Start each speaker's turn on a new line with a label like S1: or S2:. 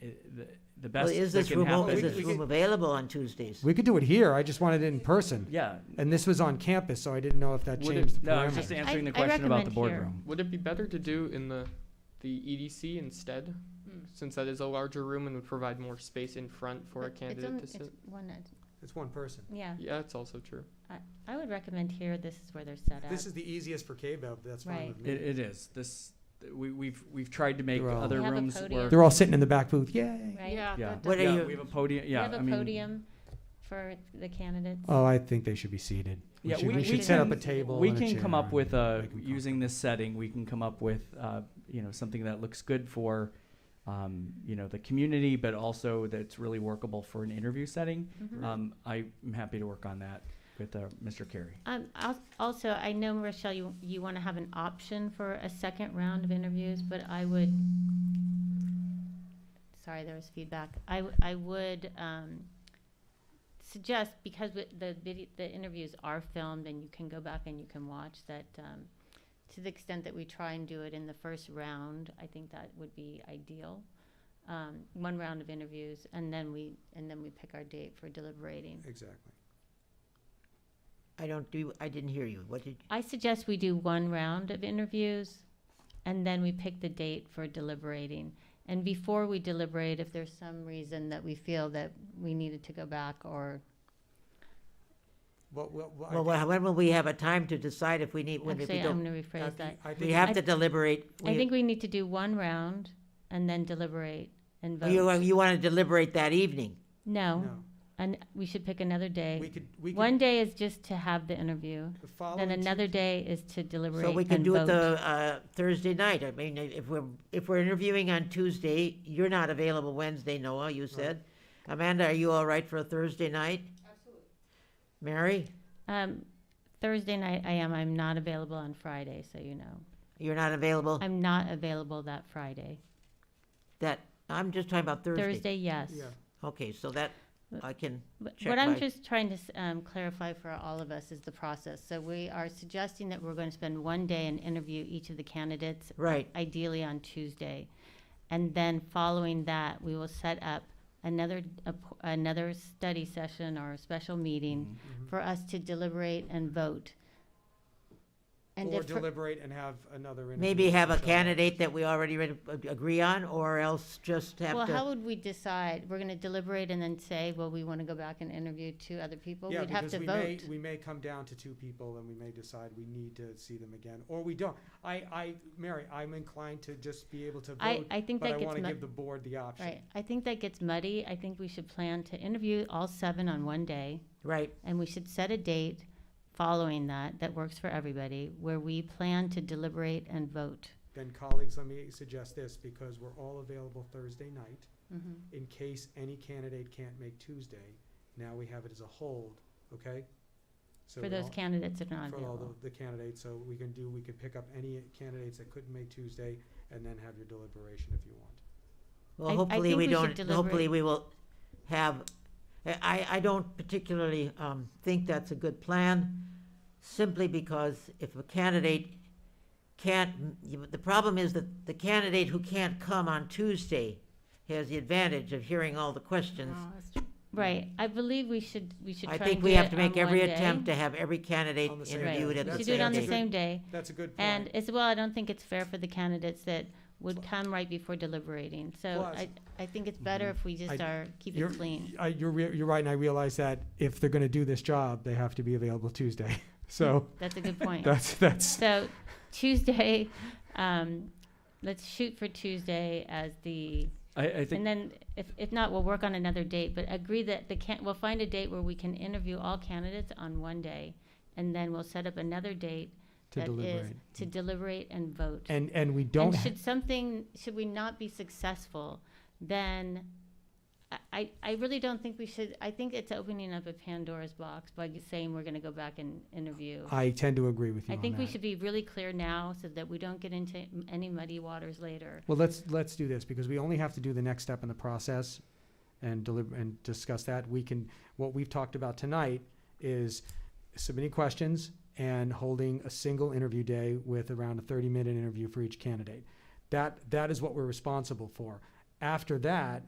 S1: it- the- the
S2: Well,
S1: best
S2: is
S1: that
S2: this
S1: can
S2: room,
S1: happen.
S2: o- is
S3: We-
S2: this
S3: we
S2: room
S3: could-
S2: available on Tuesdays?
S4: We could do it here. I just wanted it in person.
S1: Yeah.
S4: And this was on campus, so I didn't know if that
S1: Would it-
S4: changed the
S1: No, I was just
S4: parameters.
S1: answering the
S5: I
S1: question about the
S5: recommend here.
S1: boardroom.
S3: Would it be better to do in the, the EDC instead?
S5: Mm.
S3: Since that is a larger room and would provide more space in front for a
S5: But it's on-
S3: candidate to sit?
S5: it's one at-
S4: It's one person.
S5: Yeah,
S3: Yeah, it's also true.
S5: I would recommend here, this is where they're set up.
S4: This is the easiest for KBEV, that's fine
S5: Right.
S4: with
S1: It,
S4: me.
S1: it is. This, we, we've, we've tried to make
S4: They're all-
S1: other
S5: We have a
S1: rooms
S5: podium.
S1: work.
S4: They're all sitting in the back booth, yay.
S5: Right?
S1: Yeah.
S2: What are
S1: Yeah,
S2: you-
S1: We have a podium,
S5: We
S1: yeah,
S5: have
S1: I
S5: a
S1: mean, Uh,
S5: podium for the candidates.
S4: Oh, I think they should be seated. We
S1: Yeah,
S4: should,
S1: we-
S4: we
S1: we
S4: should set up a
S1: can-
S4: table
S1: we
S4: and a
S1: can come
S4: chair
S1: up
S4: and
S1: with a,
S4: make 'em
S1: using this setting, we can come up with, uh, you know, something that looks good for, um, you know, the community, but also that's really workable for an interview setting.
S5: Mhm.
S1: Um, I'm happy to work on that with, uh, Mr. Carey.
S5: Um, al- also, I know, Rochelle, you, you want to have an option for a second round of interviews, but I would, sorry, there was feedback. I, w- I would, um, suggest, because wi- the video, the interviews are filmed and you can go back and you can watch that, um, to the extent that we try and do it in the first round, I think that would be ideal. Um, one round of interviews and then we, and then we pick our date for deliberating.
S4: Exactly.
S2: I don't do, I didn't hear you. What did,
S5: I suggest we do one round of interviews and then we pick the date for deliberating. And before we deliberate, if there's some reason that we feel that we needed to go back or,
S4: Well, well, well, I
S2: well,
S4: think-
S2: when will we have a time to decide if we need, when if we
S5: actually,
S2: don't?
S5: I'm gonna
S4: I
S5: rephrase that.
S4: think- I
S2: We
S4: think-
S2: have
S5: I
S2: to
S5: th-
S2: deliberate.
S5: I
S2: We-
S5: think we need to do one round and then deliberate and
S2: You,
S5: vote.
S2: you want to deliberate that evening?
S5: No,
S4: No,
S5: and we should pick another
S4: we
S5: day.
S4: could, we could.
S5: One day is just to have the interview,
S4: the following
S5: then
S4: Tues-
S5: another day is to deliberate
S2: So we can
S5: and
S2: do it
S5: vote.
S2: the, uh, Thursday night. I mean, if we're, if we're interviewing on Tuesday, you're not available Wednesday, Noah, you said. Amanda, are you all right for a Thursday night? Absolutely. Mary,
S5: Um, Thursday night, I am, I'm not available on Friday, so you know.
S2: you're not available?
S5: I'm not available that Friday.
S2: That, I'm just talking about Thursday.
S5: Thursday, yes.
S4: Yeah.
S2: Okay, so that, I can,
S5: But
S2: Check
S5: What I'm
S2: my-
S5: just trying to s- um, clarify for all of us is the process. So we are suggesting that we're going to spend one day and interview each of the candidates,
S2: right,
S5: ideally on Tuesday. And then following that, we will set up another, app- another study session or a special
S1: Mm-hmm.
S5: meeting
S4: mm-hmm.
S5: for us to deliberate and vote. And
S4: Or
S5: if for-
S4: deliberate and have another interview.
S2: Maybe have a
S4: Michelle.
S2: candidate that we already read- ag- agree on, or else just have
S5: Well, how
S2: to,
S5: would we decide? We're gonna deliberate and then say, well, we wanna go back and interview two other people?
S4: Yeah,
S5: We'd have
S4: because
S5: to
S4: we may-
S5: vote.
S4: We may come down to two people and we may decide we need to see them again, or we don't. I, I, Mary, I'm inclined to just be able to
S5: I,
S4: vote,
S5: I think
S4: but I
S5: that
S4: want
S5: gets
S4: to
S5: muddy,
S4: give the board the option.
S5: right, I think that gets muddy. I think we should plan to interview all seven on one day,
S2: right,
S5: and we should set a date following that, that works for everybody, where we plan to deliberate and vote.
S4: Then colleagues, let me suggest this, because we're all available Thursday night.
S2: Mm-hmm.
S4: In case any candidate can't make Tuesday, now we have it as a hold, okay? So
S5: For
S4: we
S5: those
S4: all-
S5: candidates that are not
S4: For all
S5: available.
S4: the- the candidates, so we can do, we can pick up any candidates that couldn't make Tuesday and then have your deliberation if you want.
S5: I-
S2: well,
S5: I
S2: hopefully
S5: think
S2: we
S5: we should
S2: don't, hopefully
S5: deliberate.
S2: we will have, eh, I, I don't particularly, um, think that's a good plan, simply because if a candidate can't, the problem is that the candidate who can't come on Tuesday has the advantage of hearing all the questions.
S5: Right, I believe we should, we should Oh, try
S2: I
S5: and
S2: think we
S5: do
S2: have
S5: it
S2: to make
S5: on
S2: every
S5: one day.
S2: attempt to have every candidate
S4: On the same
S5: Right,
S2: interviewed
S4: day.
S2: at the
S5: we
S2: same
S5: should
S2: day.
S5: do it on the
S4: day.
S5: same day.
S4: That's a good point.
S5: And as well, I don't think it's fair for the candidates that would come right before deliberating. So
S4: Plus-
S5: I, I think it's better if we just
S4: Mm-hmm. I-
S5: are, keep
S4: You're-
S5: it clean.
S4: I, you're, re- you're right, and I realize that if they're going to do this job, they have to be available Tuesday. So
S5: That's a good point.
S4: that's that's
S5: So Tuesday, um, let's shoot for Tuesday as the,
S1: I, I
S5: and
S1: think,
S5: then if, if not, we'll work on another date, but agree that the can, we'll find a date where we can interview all candidates on one day. And then we'll set up another date
S4: to
S5: that is
S4: deliberate.
S5: to deliberate and vote.
S4: And and we don't.
S5: and
S4: ha-
S5: should something should we not be successful then I- I, I really don't think we should i think it's opening up a pandora's box by saying we're going to go back and interview
S4: I tend to agree with you.
S5: i
S4: on
S5: think we
S4: that.
S5: should be really clear now so that we don't get into m- any muddy waters later
S4: Well, let's let's do this because we only have to do the next step in the process, and deliver and discuss that. We can what we've talked about tonight is submitting questions and holding a single interview day with around a 30 minute interview for each candidate. That that is what we're responsible for. After that,